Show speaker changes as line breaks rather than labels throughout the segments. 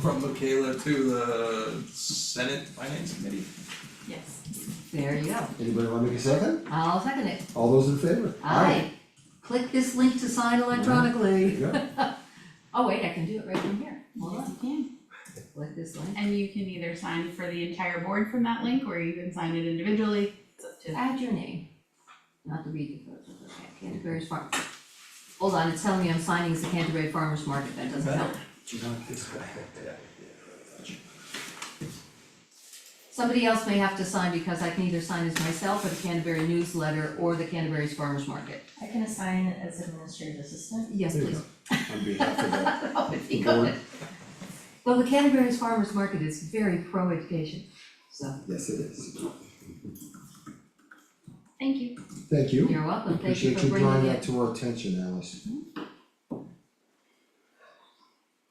from Michaela to the Senate Finance Committee.
Yes.
There you go.
Anybody wanna make a second?
I'll second it.
All those in favor?
Aye. Click this link to sign
There you
electronically.
go.
Oh, wait, I can do it right from here. Hold
Yes,
on.
you can.
Click this link.
And you can either sign for the entire board from that link, or you can sign it individually, it's up to.
Add your name. Not the reading code, but okay, Canterbury Farm. Hold on, it's telling me I'm signing as the Canterbury Farmers Market. That doesn't help.
Not this guy.
Somebody else may have to sign because I can either sign as myself or the Canterbury newsletter or the Canterbury's Farmers Market.
I can assign it as administrative assistant.
Yes,
There you
please.
go. On behalf of the
That would be
board,
good. Well, the Canterbury's Farmers Market is very pro-education, so
yes it is.
Thank you.
Thank you.
you're welcome. Thank you
Appreciate
for
you drawing
bringing
that
it.
to our attention, Alice.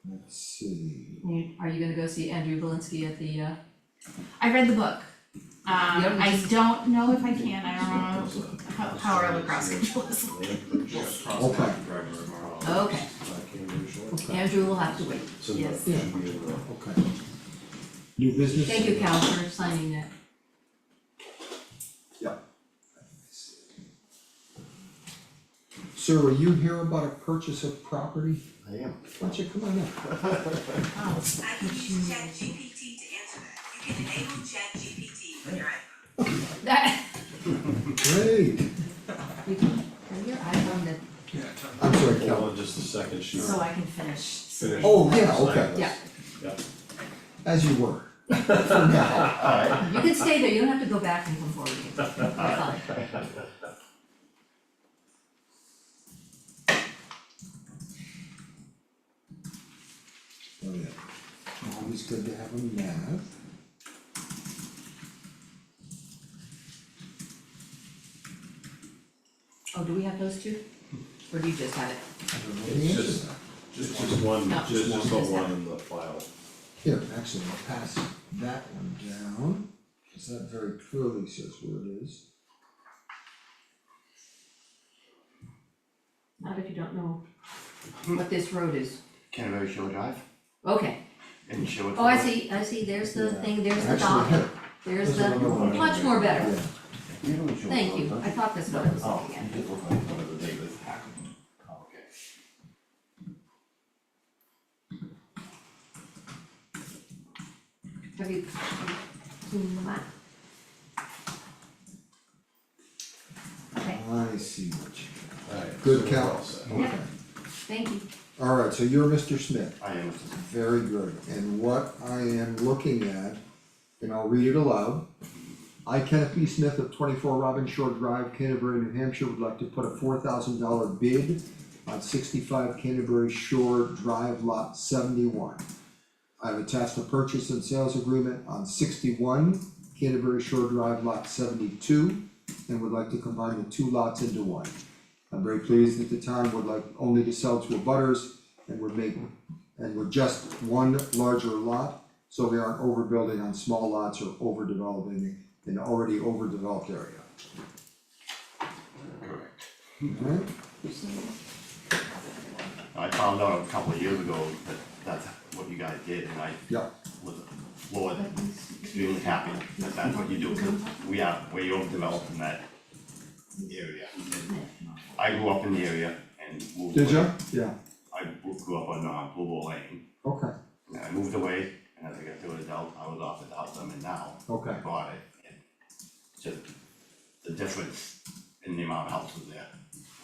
Let's see.
You- Are you gonna go see Andrew Valinsky at the, uh,
I read the book. Um,
Yeah, we
I
just-
don't know if I can, I don't know how, how our lacrosse schedule is.
Okay.
oh, okay,
Okay,
Andrew will have to wait. Yes.
okay. New business?
Thank you, Cal, for signing that.
Sir, are you here about a purchase of property?
I am.
Why don't you come on up?
I can use ChatGPT to answer that. You can enable ChatGPT on your iPhone.
That,
Great.
you can, turn your iPhone to
Yeah,
I'm sorry,
Hold
Cal.
on just a second, she.
So I can finish. submitting.
Oh, yeah, okay.
Yeah.
As you were. For now.
Alright,
You can stay there, you don't have to go back and come forward again, You're fine.
Oh, yeah. Always good to have a map.
Oh, do we have those two? Or do you just have it?
I don't know the
It's
answer
just-
to that.
just just one,
No.
just just the
Just that.
one in the file.
Here, actually, I'll pass that one down, cause that very clearly says where it is.
Not if you don't know what this road is.
Canterbury Shore Drive,
Okay,
and show it
oh, I see, I see, there's the
Yeah.
thing, there's the
Actually,
dock,
here,
there's
There's
the,
another one.
much more better,
yeah,
thank you, I thought this one was
Oh,
looking
you
at.
did look like one of the David. Oh, okay.
Have you seen the map? Okay,
I see what you,
Alright,
Good
so we're
count.
all set.
yeah, thank you.
alright, so you're Mr. Smith,
I am,
very good, and what I am looking at, and I'll read it aloud. I Kenneth B. Smith of twenty-four Robin Shore Drive, Canterbury, New Hampshire, would like to put a four thousand dollar bid on sixty-five Canterbury Shore Drive Lot seventy-one. I've attached a purchase and sales agreement on sixty-one Canterbury Shore Drive Lot seventy-two and would like to combine the two lots into one. I'm very pleased that the town would like only to sell to abutters and would make, and would just one larger lot, so we aren't overbuilding on small lots or overdeveloping an already overdeveloped area.
correct. Mm-hmm.
Alright,
I found out a couple of years ago that that's what you guys did, and I
yeah,
was floored, extremely happy that that's what you do, 'cause we are way overdeveloped in that area. I grew up in the area and moved.
did
away.
you? Yeah,
I grew up on uh Blue Ball Lane,
okay,
and I moved away, and as I got to an adult, I was off the house I'm in now,
okay,
I bought it, and just the difference in the amount of houses there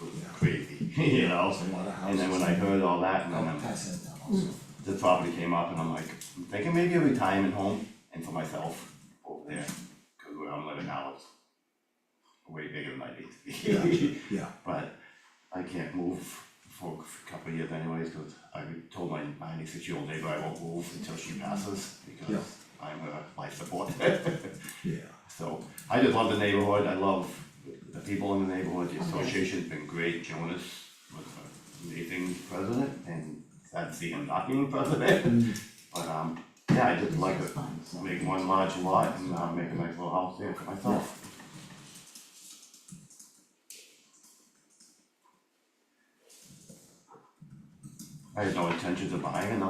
was crazy, you know?
a lot of
And then when I Mm.
houses.
heard all that, and then
I'll
I'm
pass that down also.
the property came up and I'm like, I'm thinking maybe a retirement home and for myself over there, cause where I'm living now is way bigger than I need to be.
Yeah,
But I can't move for a couple of years anyways, cause I told my ninety-six year old neighbor I won't move until she passes
Yeah.
because I'm a life support.
yeah,
So I just love the neighborhood, I love the people in the neighborhood, the association's been great, Jonas was an amazing president and sad to see him not being
Mm-hmm.
president. But um, yeah, I just like to make one large lot and uh make a nice little house there for myself. I had no intentions of buying another